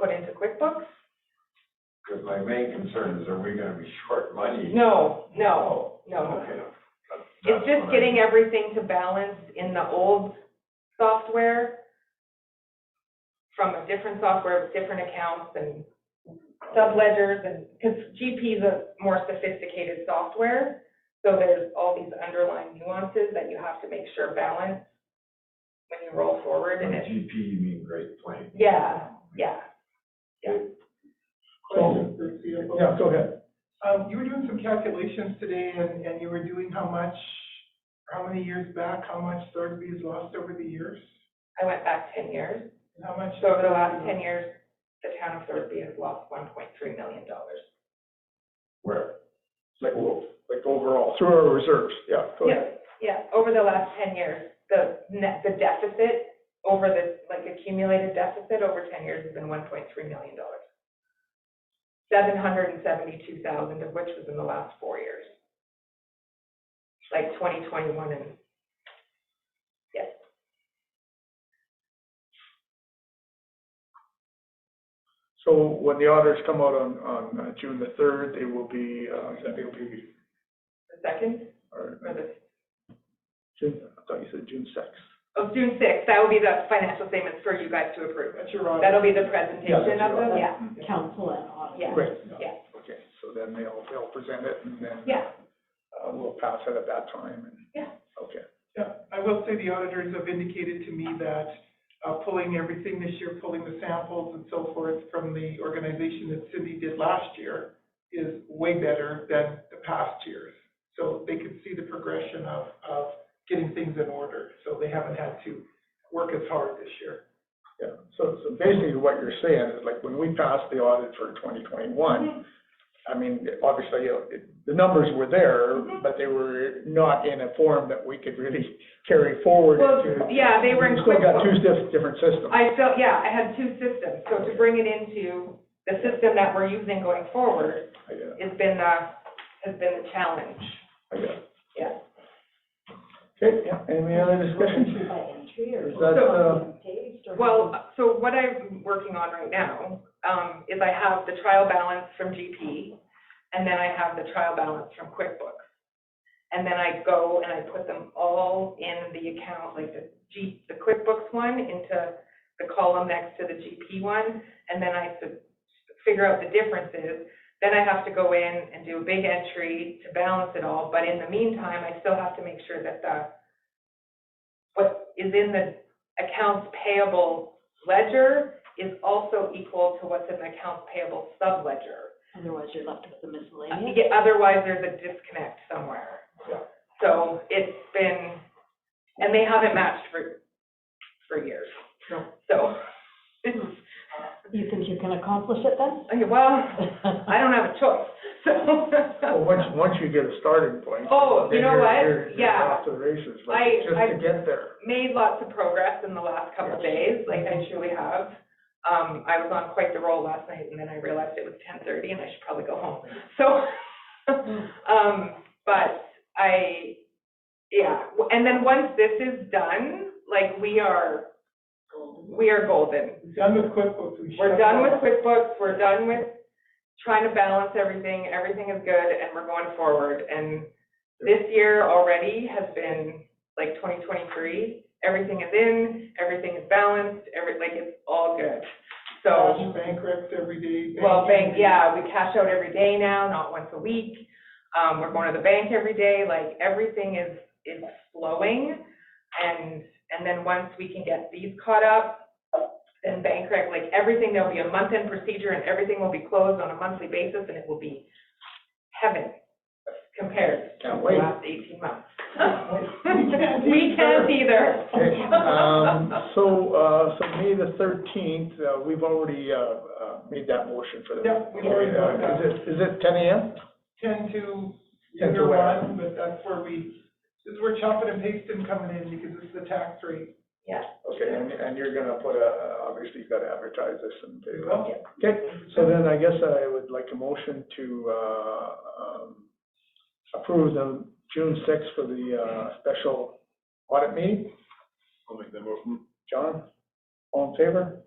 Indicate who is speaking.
Speaker 1: put into QuickBooks?
Speaker 2: Because my main concern is, are we gonna be short money?
Speaker 1: No, no, no, no, no.
Speaker 2: Okay.
Speaker 1: It's just getting everything to balance in the old software from a different software with different accounts and subledgers and, because GP is a more sophisticated software. So there's all these underlying nuances that you have to make sure balance when you roll forward and it's,
Speaker 2: GP, you mean Great Plains.
Speaker 1: yeah, yeah.
Speaker 3: Question for the CFO.
Speaker 4: Yeah, go ahead.
Speaker 3: Um, you were doing some calculations today and, and you were doing how much, how many years back, how much Thorsby has lost over the years?
Speaker 1: I went back ten years.
Speaker 3: And how much?
Speaker 1: So over the last ten years, the town of Thorsby has lost one point three million dollars.
Speaker 2: Where? Like, o- like overall.
Speaker 4: Through our reserves, yeah, go ahead.
Speaker 1: Yeah, yeah, over the last ten years, the net, the deficit over the, like accumulated deficit over ten years has been one point three million dollars. Seven hundred and seventy-two thousand of which was in the last four years. Like twenty twenty-one and, yes.
Speaker 4: So when the auditors come out on, on uh, June the third, they will be, uh, they'll be,
Speaker 1: The second,
Speaker 4: or, uh,
Speaker 1: or the,
Speaker 4: June, I thought you said June sixth.
Speaker 1: oh, June sixth, that will be the financial statements for you guys to approve.
Speaker 3: That's your audit.
Speaker 1: That'll be the
Speaker 4: Yeah,
Speaker 1: presentation
Speaker 4: that's
Speaker 1: of them,
Speaker 4: right.
Speaker 1: yeah,
Speaker 5: council and audit.
Speaker 1: yeah.
Speaker 4: Great,
Speaker 1: Yeah.
Speaker 4: okay, so then they'll, they'll present it and then.
Speaker 1: Yeah.
Speaker 4: Uh, we'll pass it at that time and.
Speaker 1: Yeah.
Speaker 4: Okay,
Speaker 3: Yeah, I will say the auditors have indicated to me that, uh, pulling everything this year, pulling the samples and so forth from the organization that Cindy did last year is way better than the past years. So they could see the progression of, of getting things in order, so they haven't had to work as hard this year.
Speaker 4: yeah, so, so basically what you're saying is like when we passed the audit for twenty twenty-one, I mean, obviously, you know, it- the numbers were there,
Speaker 1: Mhm.
Speaker 4: but they were not in a form that we could really carry forward
Speaker 1: Well,
Speaker 4: into.
Speaker 1: yeah, they were in
Speaker 4: We've Still got two
Speaker 1: QuickBooks.
Speaker 4: diff- different systems.
Speaker 1: I felt, yeah, I had two systems, so to bring it into the system that we're using going forward
Speaker 4: I get it,
Speaker 1: has been, uh, has been the challenge.
Speaker 4: I get it.
Speaker 1: Yeah.
Speaker 4: Okay, yeah, any other discussion?
Speaker 5: By entry or?
Speaker 4: Is that, uh,
Speaker 5: Based or-
Speaker 1: Well, so what I'm working on right now, um, is I have the trial balance from GP, and then I have the trial balance from QuickBooks. And then I go and I put them all in the account, like the G, the QuickBooks one into the column next to the GP one, and then I fi- figure out the differences. Then I have to go in and do a big entry to balance it all, but in the meantime, I still have to make sure that the, what is in the accounts payable ledger is also equal to what's in the accounts payable subledger.
Speaker 5: Otherwise, you're left with the
Speaker 1: Uh,
Speaker 5: miscellaneous.
Speaker 1: yeah, Otherwise, there's a disconnect somewhere. So it's been, and they haven't matched for, for years.
Speaker 3: No.
Speaker 1: So, it's,
Speaker 5: You think you can accomplish it then?
Speaker 1: okay, well, I don't have a choice,
Speaker 4: Well,
Speaker 1: so.
Speaker 4: once, once you get a starting point.
Speaker 1: Oh, you
Speaker 4: then
Speaker 1: know
Speaker 4: you're-
Speaker 1: what?
Speaker 4: you're- you're
Speaker 1: Yeah.
Speaker 4: Off to the races, like,
Speaker 1: I-
Speaker 4: just
Speaker 1: I-
Speaker 4: to get there.
Speaker 1: Made lots of progress in the last couple of days, like I truly have. Um, I was on quite the roll last night and then I realized it was ten thirty and I should probably go home. So, um, but I, yeah, w- and then once this is done, like we are, we are golden.
Speaker 3: Done with QuickBooks. we
Speaker 1: We're
Speaker 3: shut
Speaker 1: done
Speaker 3: down.
Speaker 1: with QuickBooks, we're done with trying to balance everything, everything is good, and we're going forward. And this year already has been, like, twenty twenty-three, everything is in, everything is balanced, every, like, it's all good. So,
Speaker 3: Cash Bankrupt every day.
Speaker 1: well, bank,
Speaker 3: every day.
Speaker 1: yeah, we cash out every day now, not once a week. Um, we're going to the bank every day, like, everything is, is flowing. And, and then once we can get these caught up, then bank rec, like, everything, there'll be a month-end procedure and everything will be closed on a monthly basis and it will be heaven compared to
Speaker 4: Can't
Speaker 1: the
Speaker 4: wait.
Speaker 1: last eighteen months.
Speaker 3: We can't
Speaker 1: We can't either.
Speaker 4: Okay, um, so, uh, so May the thirteenth, uh, we've already, uh, uh, made that motion for the. uh,
Speaker 3: Yeah, we've already done that.
Speaker 4: Is it, is it ten AM?
Speaker 3: Ten to
Speaker 4: Ten to
Speaker 3: year
Speaker 4: where?
Speaker 3: one, but that's where we, this is where chopping and pasting coming in because this is the tax rate.
Speaker 1: Yeah,
Speaker 4: Okay, and, and you're gonna put a, obviously you've gotta advertise this and.
Speaker 3: We will.
Speaker 4: Okay, so then I guess I would like a motion to, uh, um, approve the June sixth for the, uh, special audit meeting. I'll make that motion. John, all in favor?